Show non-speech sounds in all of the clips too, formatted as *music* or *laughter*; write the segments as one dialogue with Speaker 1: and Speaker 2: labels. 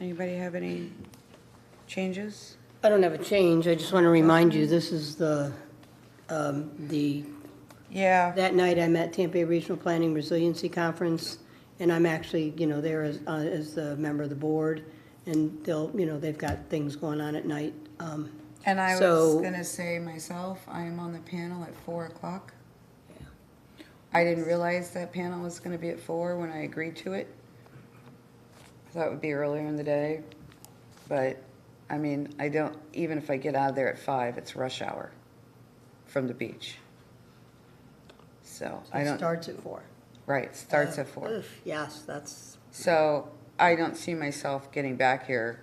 Speaker 1: Anybody have any changes?
Speaker 2: I don't have a change, I just want to remind you, this is the, um, the,
Speaker 1: Yeah,
Speaker 2: that night I'm at Tampa Bay Regional Planning Resiliency Conference, and I'm actually, you know, there as, uh, as the member of the board, and they'll, you know, they've got things going on at night. Um,
Speaker 1: and I was
Speaker 2: So-
Speaker 1: gonna say myself, I am on the panel at four o'clock. I didn't realize that panel was gonna be at four when I agreed to it. I thought it would be earlier in the day, but, I mean, I don't, even if I get out of there at five, it's rush hour from the beach. So, I
Speaker 2: It
Speaker 1: don't,
Speaker 2: starts at four.
Speaker 1: right, starts at four.
Speaker 2: Oof, Yes, that's,
Speaker 1: So I don't see myself getting back here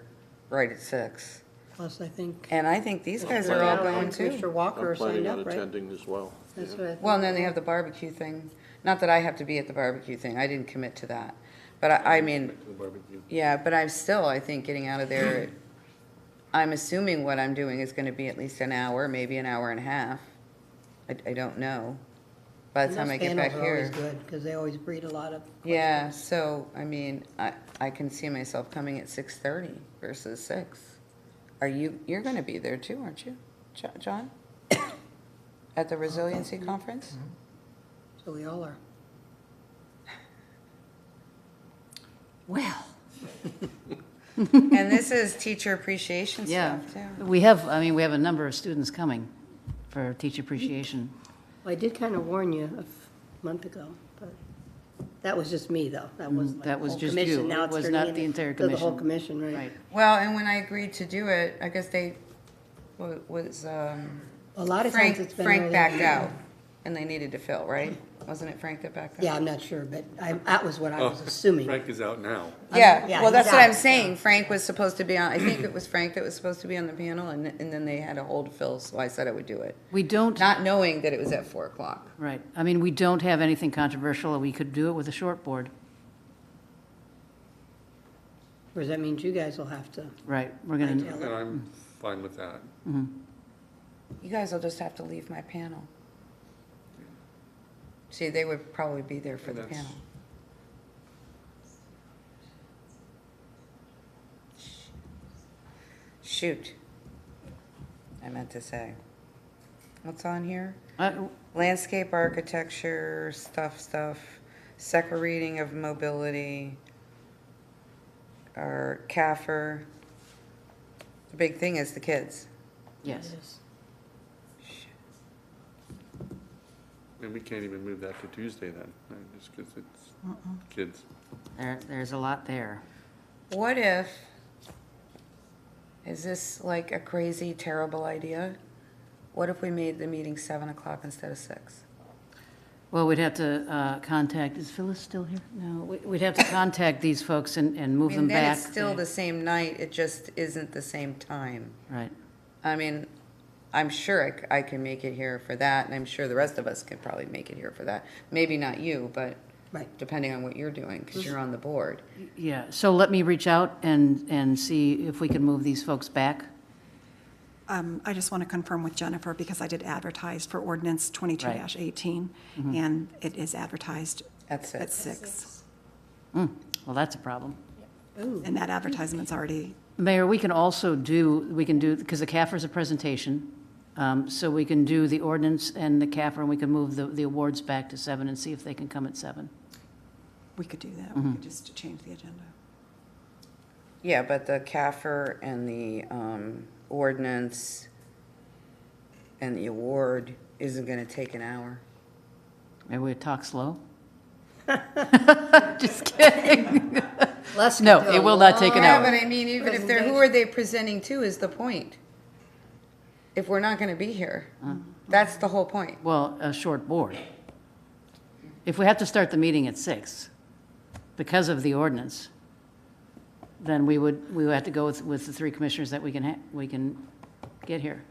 Speaker 1: right at six.
Speaker 2: plus I think.
Speaker 1: And I think these guys are all going
Speaker 2: Mr.
Speaker 1: too.
Speaker 2: Walker
Speaker 3: I'm
Speaker 2: signed
Speaker 3: planning on
Speaker 2: up, right?
Speaker 3: attending as well.
Speaker 2: That's what I think.
Speaker 1: Well, and then they have the barbecue thing. Not that I have to be at the barbecue thing. I didn't commit to that. But I, I mean,
Speaker 3: The barbecue.
Speaker 1: yeah, but I'm still, I think, getting out of there. at- I'm assuming what I'm doing is gonna be at least an hour, maybe an hour and a half. I, I don't know. By the time I get back
Speaker 2: Panels are
Speaker 1: here.
Speaker 2: always good, because they always breed a lot of.
Speaker 1: Yeah, so, I mean, I, I can see myself coming at six thirty versus six. Are you, you're gonna be there too, aren't you, Jo- John? *coughs* At the resiliency
Speaker 2: Mm-hmm.
Speaker 1: conference?
Speaker 2: So we all are.
Speaker 1: Well. And this is teacher appreciation
Speaker 4: Yeah,
Speaker 1: stuff too.
Speaker 4: we have, I mean, we have a number of students coming for teacher appreciation.
Speaker 2: Well, I did kind of warn you a f- month ago, but that was just me, though. That was
Speaker 4: Mm, that was just you.
Speaker 2: Now
Speaker 4: It
Speaker 2: it's
Speaker 4: was
Speaker 2: turning
Speaker 4: not
Speaker 2: into-
Speaker 4: the entire
Speaker 2: to The whole
Speaker 4: commission.
Speaker 2: commission, right?
Speaker 4: Right.
Speaker 1: Well, and when I agreed to do it, I guess they, wa- was, um,
Speaker 2: A lot of times
Speaker 1: Frank,
Speaker 2: it's been.
Speaker 1: Frank
Speaker 2: early
Speaker 1: backed
Speaker 2: *coughs* on.
Speaker 1: out and they needed to fill, right? Wasn't it Frank that backed out?
Speaker 2: *laughs* Yeah, I'm not sure, but I, that was what I
Speaker 1: Oh,
Speaker 2: was assuming.
Speaker 3: Frank is out now.
Speaker 1: Yeah,
Speaker 2: yeah,
Speaker 1: well,
Speaker 2: he's
Speaker 1: that's what I'm
Speaker 2: out,
Speaker 1: saying. Frank was supposed to be on, I think it was Frank that was supposed to be on the panel, and, and then they had a hold Phil, so I said I would do it.
Speaker 4: We don't,
Speaker 1: Not knowing that it was at four o'clock.
Speaker 4: right, I mean, we don't have anything controversial, we could do it with a short board,
Speaker 2: Whereas that means you guys will have to.
Speaker 4: right, we're gonna,
Speaker 3: And I'm fine with that.
Speaker 1: You guys will just have to leave my panel. See, they would probably be there for the
Speaker 3: That's-
Speaker 1: panel. Shoot. I meant to say. What's on here?
Speaker 4: Uh,
Speaker 1: landscape architecture, stuff, stuff, second reading of mobility, or CAFR. The big thing is the kids.
Speaker 4: yes.
Speaker 3: And we can't even move that to Tuesday then, right, just because it's kids.
Speaker 4: There, there's a lot there.
Speaker 1: What if, is this like a crazy, terrible idea? What if we made the meeting seven o'clock instead of six?
Speaker 4: Well, we'd have to uh, contact, is Phyllis still here? No, we- we'd have to contact these folks and, and move them
Speaker 1: And then
Speaker 4: back.
Speaker 1: it's still the same night, it just isn't the same time.
Speaker 4: Right,
Speaker 1: I mean, I'm sure I c- I, can make it here for that, and I'm sure the rest of us could probably make it here for that. Maybe not you, but
Speaker 2: Right.
Speaker 1: depending on what you're doing, because you're on the board.
Speaker 4: yeah, so let me reach out and, and see if we can move these folks back.
Speaker 5: Um, I just want to confirm with Jennifer, because I did advertise for ordinance 22-18, and it is advertised
Speaker 1: That's
Speaker 5: at
Speaker 1: it.
Speaker 5: six,
Speaker 4: Hmm, Well, that's a problem.
Speaker 5: And that advertisement's already,
Speaker 4: Mayor, we can also do, we can do, because the CAFR is a presentation, um, so we can do the ordinance and the CAFR, and we can move the, the awards back to seven and see if they can come at seven.
Speaker 5: we could do that, we could just change the agenda.
Speaker 1: Yeah, but the CAFR and the um, ordinance and the award isn't going to take an hour.
Speaker 4: Maybe we talk slow? *laughs* Just kidding.
Speaker 2: Les could
Speaker 4: *laughs* No,
Speaker 2: do a
Speaker 4: it will not take an
Speaker 2: long-
Speaker 1: Yeah,
Speaker 4: hour.
Speaker 1: but I mean, even if they're, who are they presenting to is the point. If we're not going to be here, that's the whole point.
Speaker 4: Well, a short board. If we have to start the meeting at six because of the ordinance, then we would, we would have to go with, with the three commissioners that we can, ha- we can get here.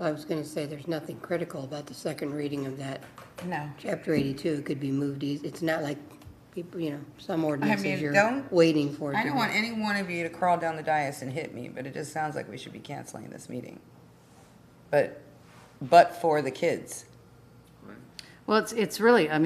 Speaker 2: I was going to say, there's nothing critical about the second reading of that.
Speaker 1: No.
Speaker 2: Chapter 82 It could be moved, eas- it's not like, people, you know, some
Speaker 1: mean,
Speaker 2: ordinances you're
Speaker 1: don't-
Speaker 2: waiting for. it
Speaker 1: I
Speaker 2: to
Speaker 1: don't
Speaker 2: be-
Speaker 1: want any one of you to crawl down the dais and hit me, but it just sounds like we should be canceling this meeting. But, but for the kids.
Speaker 4: Well, it's, it's really, I mean.